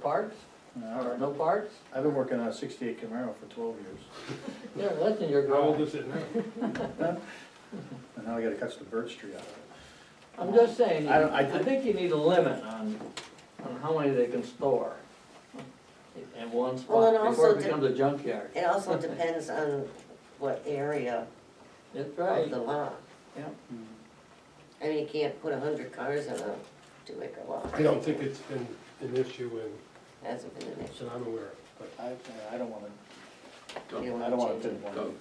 parts, All or right. no parts? I've been working on a sixty-eight Camaro for twelve years, Yeah, that's in your How old garage. is it now? and now I gotta cut the birch tree out of it. I'm just saying, I don't- I I think- think you need a limit on, on how many they can store in one Well, and spot before also it to- becomes a junkyard. It also depends on what area That's of right. the lot. Yep. I mean, you can't put a hundred cars on a two acre lot, I don't think it's been an issue in, hasn't been an issue. that I'm aware of, but I, I don't wanna, You don't I don't wanna change it. pinpoint anything.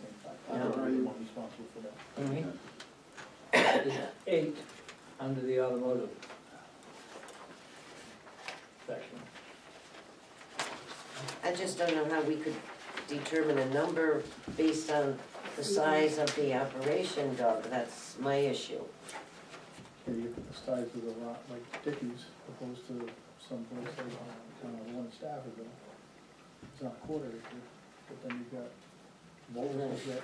I don't really want to be responsible for that. Mhm. It's Eight under the automotive section. I just don't know how we could determine a number based on the size of the operation dog, that's my issue. Yeah, you get the size of the lot, like Dickies, opposed to someplace like, uh, kind of one Staffordville. It's not a quarter acre, but then you've got multiples that,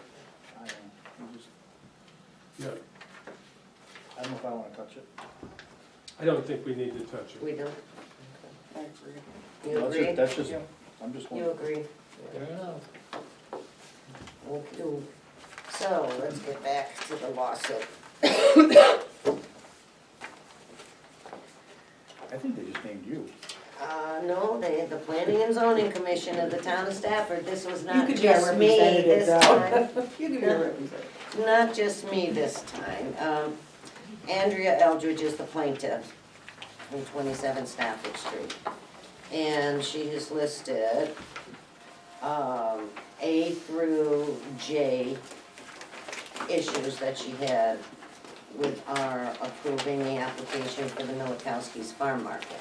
I don't know, you just, yeah, I don't know if I wanna touch it. I don't think we need to touch it. We don't, I agree. you agree? That's just, I'm just You wondering. agree? Fair enough. Okay. So, let's get back to the lawsuit. I think they just named you. Uh, no, they, the planning and zoning commission of the town of Stafford, this was You not could be our just me representative, this time. though. You could be our representative. Not just me this time. Um, Andrea Eldridge is the plaintiff in twenty-seven Stafford Street. And she has listed, um, A through J issues that she had with our approving the application for the Milikowski's Farm Market.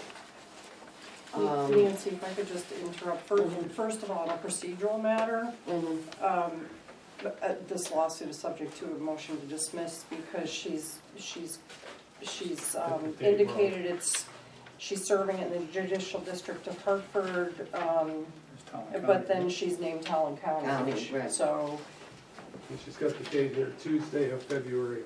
Um, Nancy, if I could just interrupt, Fir- first of all, on a procedural matter, mhm. um, uh, this lawsuit is subject to a motion to dismiss because she's, she's, she's um, Date wrong. indicated it's, she's serving in the judicial district of Hartford, um, It's Tom and but Connie. then she's named Talon County. County, right. So, And she's got the date here, Tuesday of February,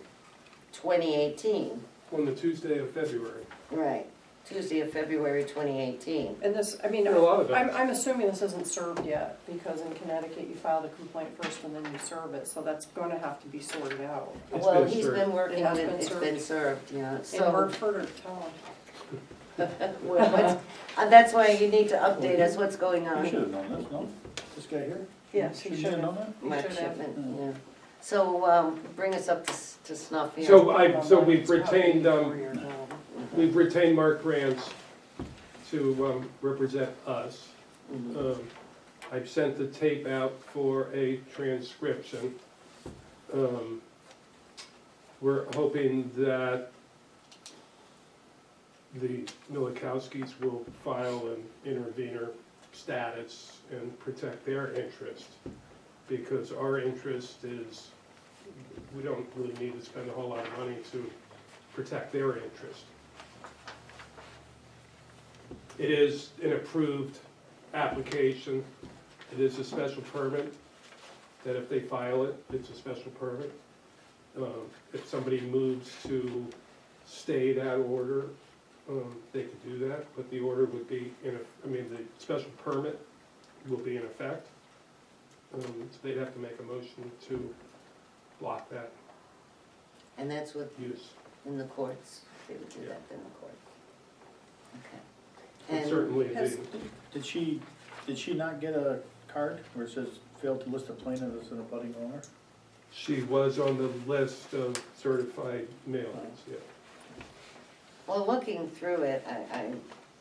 2018, on the Tuesday of February. right, Tuesday of February 2018. and this, I mean, There are a lot of I'm, them. I'm assuming this isn't served yet, because in Connecticut, you file the complaint first and then you serve it, so that's gonna have to be sorted out. It's Well, been he's served. been working on It it, has it's been been served, yeah, In so. Hartford or Talon? Well, what's- uh, That's why you need to update us what's going You should on. have known this, no? This guy here? Yes, he Shouldn't should known have. that? You Mark should have. Shipman, Mm. yeah. So um, bring us up to s- to snuff here. So I, so we've It's probably retained, four um, years old. we've retained Mark Rance to, um, represent us. Mhm. Um, I've sent the tape out for a transcription. Um, We're hoping that the Milikowskis will file an intervenor status and protect their interest, because our interest is, we don't really need to spend a whole lot of money to protect their interest. It is an approved application, it is a special permit, that if they file it, it's a special permit. Um, If somebody moves to stay that order, um, they could do that, but the order would be, in a- I mean, the special permit will be in effect. Um, So they'd have to make a motion to block that And that's what, use. in the courts, they would do that in the court. Okay. And And- certainly, Has- the Did she, did she not get a card where it says failed to list a plaintiff as an abutting owner? she was on the list of certified mailings, yeah. Well, looking through it, I,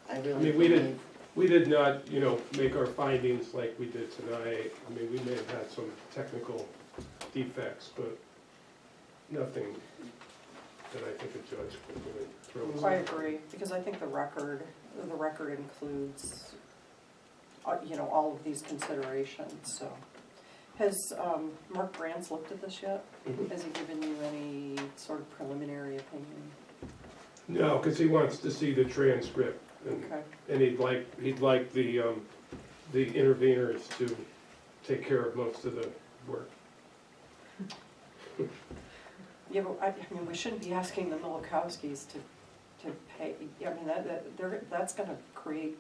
I I I really mean, we believe, didn't, we did not, you know, make our findings like we did tonight. I mean, we may have had some technical defects, but nothing that I think a judge could really throw. us. I agree, because I think the record, the record includes, uh, you know, all of these considerations, so. Has um, Mark Brands looked at this yet? Mhm. Has he given you any sort of preliminary opinion? No, because he wants to see the transcript, and, Okay, and he'd like, he'd like the, um, the interveners to take care of most of the work. yeah, but I, I mean, we shouldn't be asking the Milikowskis to, to pay, I mean, that, that, they're, that's gonna create